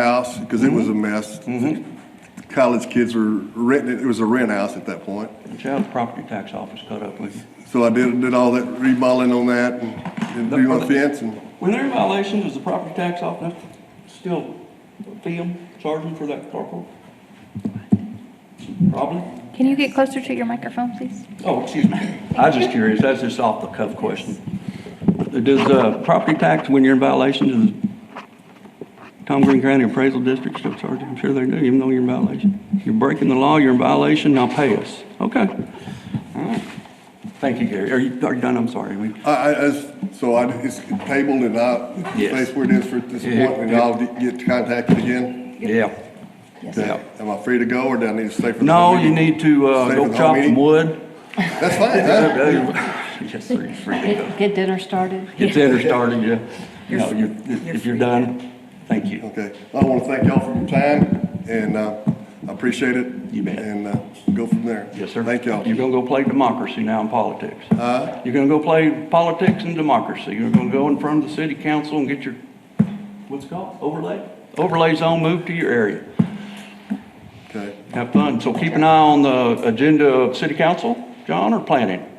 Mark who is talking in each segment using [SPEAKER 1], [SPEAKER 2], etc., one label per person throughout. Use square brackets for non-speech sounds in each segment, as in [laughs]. [SPEAKER 1] house, because it
[SPEAKER 2] Mm-hmm.
[SPEAKER 1] was a mess. College kids were renting it, it was a rent house at that point.
[SPEAKER 2] Did you have the property tax office cut up with you?
[SPEAKER 1] So I did, did all that remodeling on that and and
[SPEAKER 2] The-
[SPEAKER 1] do my fence and,
[SPEAKER 2] Were there violations, does the property tax office still fee them, charge them for that carport? Probably?
[SPEAKER 3] Can you get closer to your microphone, please?
[SPEAKER 2] Oh, excuse me. I was just curious, that's just off the cuff question. Does, uh, property tax, when you're in violation, does Tom Green County Appraisal District still charge you? I'm sure they do, even though you're in violation. You're breaking the law, you're in violation, now pay us. Okay. All right. Thank you, Gary. Are you, are you done? I'm sorry. We-
[SPEAKER 1] I, I, I s- so I, it's tabled and I,
[SPEAKER 2] Yes.
[SPEAKER 1] place where it is for this
[SPEAKER 2] Yeah,
[SPEAKER 1] point, and
[SPEAKER 2] yeah.
[SPEAKER 1] I'll get contacted again.
[SPEAKER 2] Yeah. Yeah.
[SPEAKER 1] Am I free to go or do I need to stay for? the
[SPEAKER 2] No,
[SPEAKER 1] whole
[SPEAKER 2] you
[SPEAKER 1] meeting?
[SPEAKER 2] need to, uh,
[SPEAKER 1] Stay for the
[SPEAKER 2] go
[SPEAKER 1] whole
[SPEAKER 2] chop some
[SPEAKER 1] meeting?
[SPEAKER 2] wood. [laughs]
[SPEAKER 1] That's fine, huh?
[SPEAKER 2] Yes, sir, you're free to go.
[SPEAKER 4] Get get dinner started.
[SPEAKER 2] Get dinner started, yeah. You know, you, if you're done, thank you.
[SPEAKER 1] Okay, I want to thank y'all for your time, and uh, I appreciate it.
[SPEAKER 2] You bet.
[SPEAKER 1] And uh, go from there.
[SPEAKER 2] Yes, sir.
[SPEAKER 1] Thank y'all.
[SPEAKER 2] You're gonna go play democracy now in politics. Uh? You're gonna go play politics and democracy. You're gonna go in front of the city council and get your, what's it called, overlay? Overlay zone moved to your area.
[SPEAKER 1] Okay,
[SPEAKER 2] Have fun. So keep an eye on the agenda of city council, John, or planning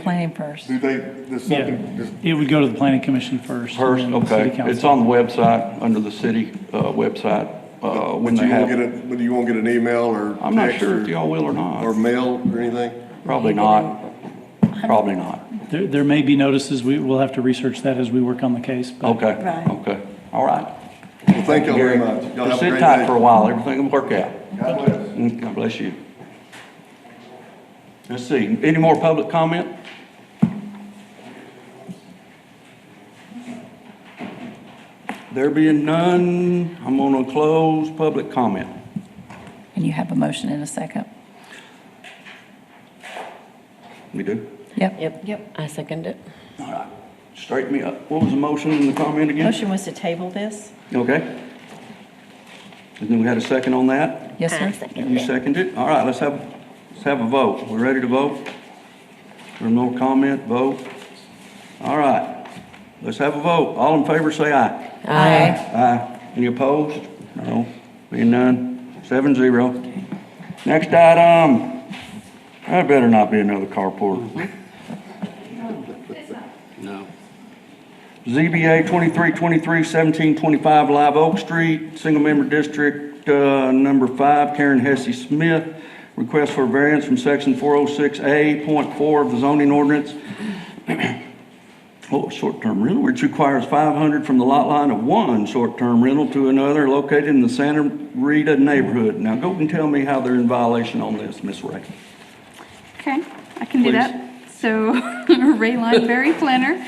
[SPEAKER 4] Planning first.
[SPEAKER 1] do they, there's something,
[SPEAKER 5] Yeah,
[SPEAKER 1] there's-
[SPEAKER 5] it would go to the planning commission first. and
[SPEAKER 2] first,
[SPEAKER 5] then the city
[SPEAKER 2] okay?
[SPEAKER 5] council.
[SPEAKER 2] It's on the website, under the city, uh, website, uh, when
[SPEAKER 1] but
[SPEAKER 2] they
[SPEAKER 1] you won't
[SPEAKER 2] have.
[SPEAKER 1] get a, but you won't get an email or
[SPEAKER 2] I'm not
[SPEAKER 1] text
[SPEAKER 2] sure
[SPEAKER 1] or-
[SPEAKER 2] if y'all will or
[SPEAKER 1] Or
[SPEAKER 2] not.
[SPEAKER 1] mail or anything?
[SPEAKER 2] Probably not. Probably not.
[SPEAKER 5] There, there may be notices, we, we'll have to research that as we work on the case, but.
[SPEAKER 2] Okay,
[SPEAKER 4] Right.
[SPEAKER 2] okay. All right.
[SPEAKER 1] Well, thank y'all very
[SPEAKER 2] Gary,
[SPEAKER 1] much. Y'all have a
[SPEAKER 2] just sit
[SPEAKER 1] great
[SPEAKER 2] tight
[SPEAKER 1] day.
[SPEAKER 2] for a while. Everything will work out.
[SPEAKER 1] God bless.
[SPEAKER 2] Mm, God bless you. Let's see. Any more public comment? There being none, I'm going to close public comment.
[SPEAKER 4] And you have a motion in a second.
[SPEAKER 2] We do?
[SPEAKER 4] Yep.
[SPEAKER 6] Yep. Yep. I second it.
[SPEAKER 2] All right. Straighten me up. What was the motion and the comment again?
[SPEAKER 7] Motion was to table this.
[SPEAKER 2] Okay. And then we had a second on that?
[SPEAKER 4] Yes,
[SPEAKER 6] I
[SPEAKER 4] sir?
[SPEAKER 6] second
[SPEAKER 2] You
[SPEAKER 6] it.
[SPEAKER 2] seconded it? All right, let's have, let's have a vote. We're ready to vote? There no comment, vote? All right, let's have a vote. All in favor, say aye.
[SPEAKER 4] Aye.
[SPEAKER 2] Aye. Any opposed? No. Being none, seven zero. Next item, that better not be another carport. No. ZBA 2323 1725 Live Oak Street, Single Member District uh, Number 5, Karen Hesse Smith. Request for variance from Section 406A.4 of the zoning ordinance Oh, short-term rental, which requires five hundred from the lot line of one short-term rental to another located in the Santa Rita neighborhood. Now go and tell me how they're in violation on this, Miss Ray.
[SPEAKER 8] Okay, I can do
[SPEAKER 2] Please.
[SPEAKER 8] that. So [laughs] Ray Berry Planner.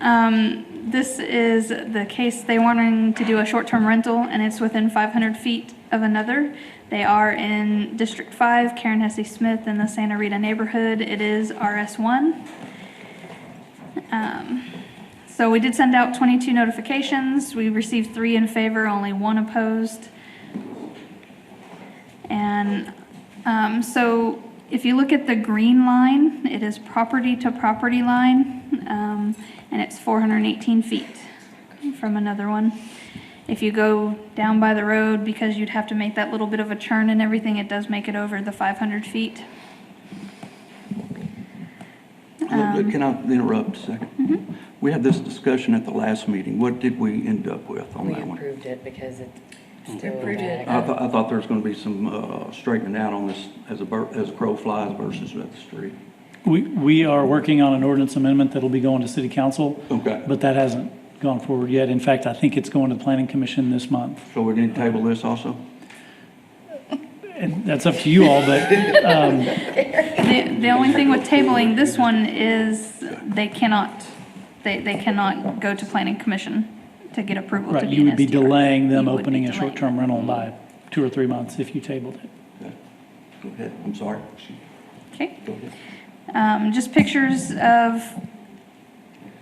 [SPEAKER 8] Um, This is the case, they wanting to do a short-term rental, and it's within 500 feet of another. They are in District 5, Karen Hesse Smith in the Santa Rita neighborhood. It is RS1. Um, So we did send out 22 notifications. We received three in favor, only one opposed. And um, so if you look at the green line, it is property to property line, um, and it's 418 feet from another one. If you go down by the road, because you'd have to make that little bit of a turn and everything, it does make it over the 500 feet. Um,
[SPEAKER 2] Can I interrupt a second? We had this discussion at the last meeting. What did we end up with on
[SPEAKER 6] We
[SPEAKER 2] that one?
[SPEAKER 6] approved it because it's still.
[SPEAKER 4] Approved it.
[SPEAKER 6] back.
[SPEAKER 2] I thought, I thought there was gonna be some, uh, straightening out on this as a bird, as a crow flies versus at the street.
[SPEAKER 5] We, we are working on an ordinance amendment that'll be going to city council.
[SPEAKER 2] Okay.
[SPEAKER 5] But that hasn't gone forward yet. In fact, I think it's going to the planning commission this month.
[SPEAKER 2] So we didn't table this also?
[SPEAKER 5] And that's up to you all,
[SPEAKER 8] [laughs]
[SPEAKER 5] but
[SPEAKER 8] The, the only thing with tabling this one is they cannot, they, they cannot go to planning commission to get approval to
[SPEAKER 5] right,
[SPEAKER 8] be
[SPEAKER 5] you
[SPEAKER 8] an
[SPEAKER 5] would be
[SPEAKER 8] SDR.
[SPEAKER 5] delaying them
[SPEAKER 8] You would be
[SPEAKER 5] opening a
[SPEAKER 8] delaying.
[SPEAKER 5] short-term rental by two or three months if you tabled it.
[SPEAKER 2] Go ahead, I'm sorry.
[SPEAKER 8] Okay,
[SPEAKER 2] Go ahead.
[SPEAKER 8] um, just pictures of,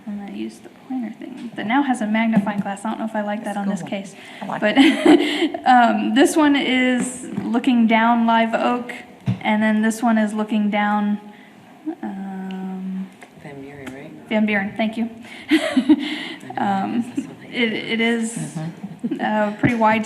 [SPEAKER 8] I'm gonna use the pointer thing, that now has a magnifying glass, I don't know if I like that on this case. But, [laughs] um, this one is looking down Live Oak, and then this one is looking down, um,
[SPEAKER 6] Van Buren, right?
[SPEAKER 8] Van Buren, thank [laughs] you. Um, It, it is uh, pretty wide